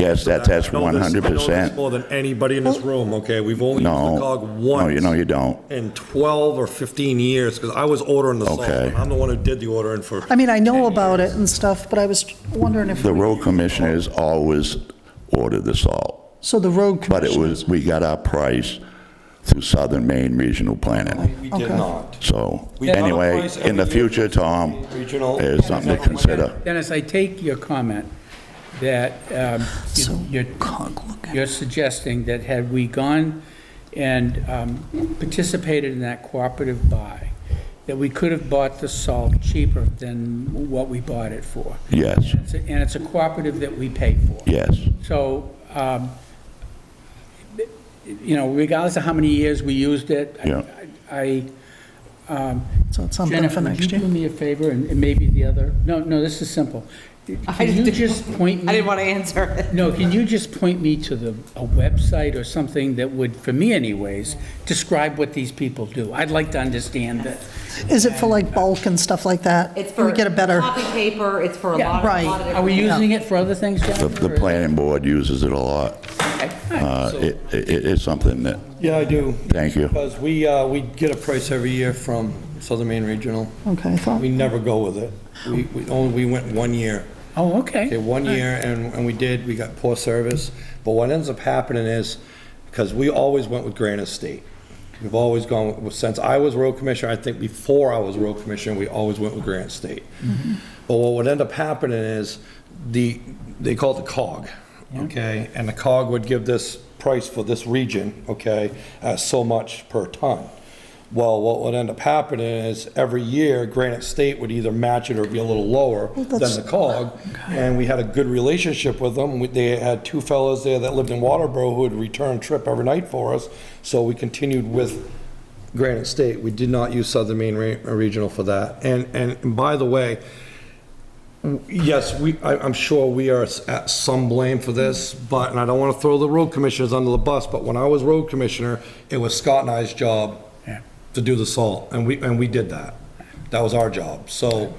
Yes, that's, that's I know this- I know this 100%. More than anybody in Oh. this room, okay? We've only used No. the cog No, you once know you don't. in 12 or 15 years, because I was ordering the salt. Okay. I'm the one who did the ordering for, I mean, I know about it and stuff, but I was wondering if, The road commissioners always ordered the salt, so the road but it commission, was, we got our price through Southern Maine Regional Planning. We did not. So, We- anyway, Otherwise, in the every year- future, Tom, Regional- is something to consider. Dennis, I take your comment that um, you- so you're cog looking. you're suggesting that had we gone and um, participated in that cooperative buy, that we could have bought the salt cheaper than what we bought it for. Yes, It's a- And it's a cooperative that we pay for. yes, So, um, you know, regardless of how many years we used it, I- Yeah. I, so it's something Jennifer, Um, for would you next do year. me a favor, and and maybe the other, no, no, this is simple. Can you didn't- just point me? I didn't want to answer it. No, can you just point me to the, a website or something that would, for me anyways, describe what these people do? I'd like to understand that. Is it for like bulk and stuff like that? It's Can for We get a better, copy paper, it's for a Yeah, lot, a lot right. of Are we different. using it for other things, the, Jennifer? the planning board uses it a lot. Okay, all Uh, right, so- It, it, it's something that, Yeah, I do. thank you. Because we, uh, we get a price every year from Southern Maine Regional. okay, I thought, We never go with it. We, we only, we went one year. Oh, okay. Okay, one year, and, and we did, we got poor service. But what ends up happening is, because we always went with Granite State. We've always gone, with- since I was road commissioner, I think before I was road commissioner, we always went with Granite State. Mm-hmm. But what would end up happening is, the, they call it the cog, okay? And the cog would give this price for this region, okay, at so much per ton. Well, what would end up happening is, every year, Granite State would either match it or be a little lower than that's- the cog, and we had a good relationship with them. We- They had two fellows there that lived in Waterboro who would return trip every night for us, so we continued with Granite State. We did not use Southern Maine Re- Regional for that. And, and by the way, yes, we, I, I'm sure we are at some blame for this, but, and I don't want to throw the road commissioners under the bus, but when I was road commissioner, it was Scott and I's job Yeah. to do the salt, and we, and we did that. That was our job, so,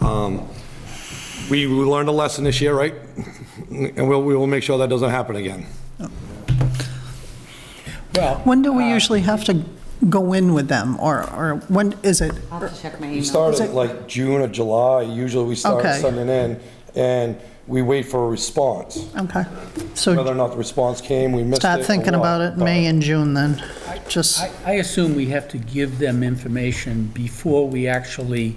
um, we, we learned a lesson this year, right? And we'll, we will make sure that doesn't happen again. Well, uh, when do we usually have to go in with them, or, or when is it? I'll have to check my We email. start Is at it- like June or July, usually we start Okay. sending in, and we wait for a response. Okay, Whether or so not the response came, we missed it. start or thinking what, about it in but- May and June then, just, I, I assume we have to give them information before we actually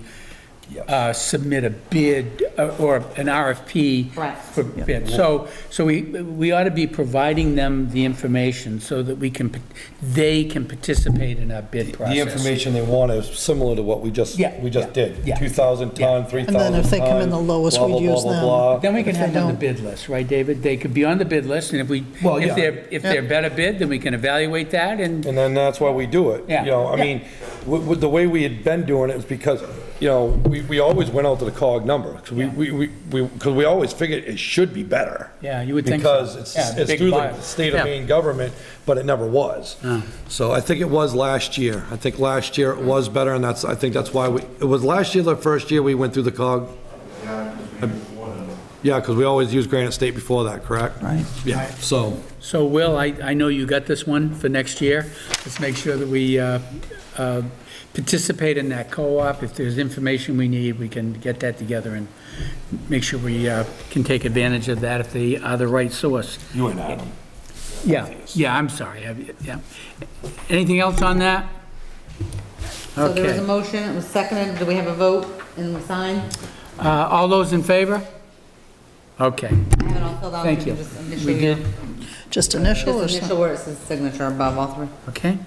uh, submit a bid uh, or an RFP. Correct. For bid. So, so we, we ought to be providing them the information so that we can, they can participate in our bid process. The information they want is similar to what we just, Yeah, we just yeah, did. yeah. 2,000 ton, 3,000 ton. And then if they come in the lowest, blah, we blah, blah, use blah, them. blah. Then we can If they have them on the don't- bid list, right, David? They could be on the bid list, and if we, Well, if yeah. they're, if they're better bid, then we can evaluate that and And then that's why we do it. Yeah. You know, I Yeah. mean, with, with the way we had been doing it was because, you know, we, we always went out to the cog number. Cause we, we, we, because we always figured it should be better. Yeah, you would think so. Because it's, Yeah, it's big through buy. the state Yeah. of Maine government, but it never was. So I think it was last year. I think last year it was better and that's, I think that's why we, it was last year, the first year we went through the cog. Yeah, because we always used Granite State before that, correct? Right. Yeah, so. So Will, I, I know you got this one for next year. Let's make sure that we uh, uh, participate in that co-op. If there's information we need, we can get that together and make sure we uh, can take advantage of that if they are the right source. You and Adam. Yeah, yeah, I'm sorry, I- yeah. Anything else on that? So there was a Okay. motion, it was seconded, do we have a vote and we sign? Uh, All those in favor? Okay, I have it all filled out. thank you. can just initial We your- did, just initial or Just something? initial where it says signature above all three. okay.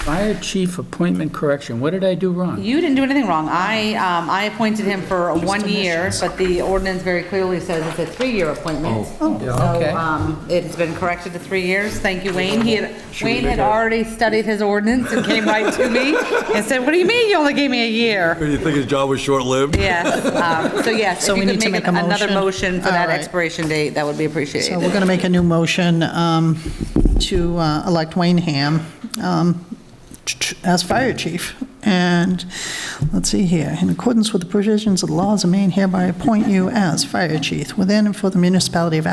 Fire chief appointment correction, what did I do wrong? You didn't do anything wrong. I, um, I appointed him for one year, but the ordinance very clearly says it's a three-year appointment. okay. So, um, it's been corrected to three years. Thank you, Wayne. He had, Wayne had already studied his ordinance and came right to me and said, what do you mean you only gave me a year? Do you think his job was short-lived? Yes, um, so yes, So we if need you could to make make a another motion? motion for that All right. expiration date, that would be So we're appreciated. going to make a new motion um, to uh, elect Wayne Ham um, ch- ch- as fire chief. And, let's see here, in accordance with the provisions of the laws of Maine, hereby appoint you as fire chief within and for the municipality of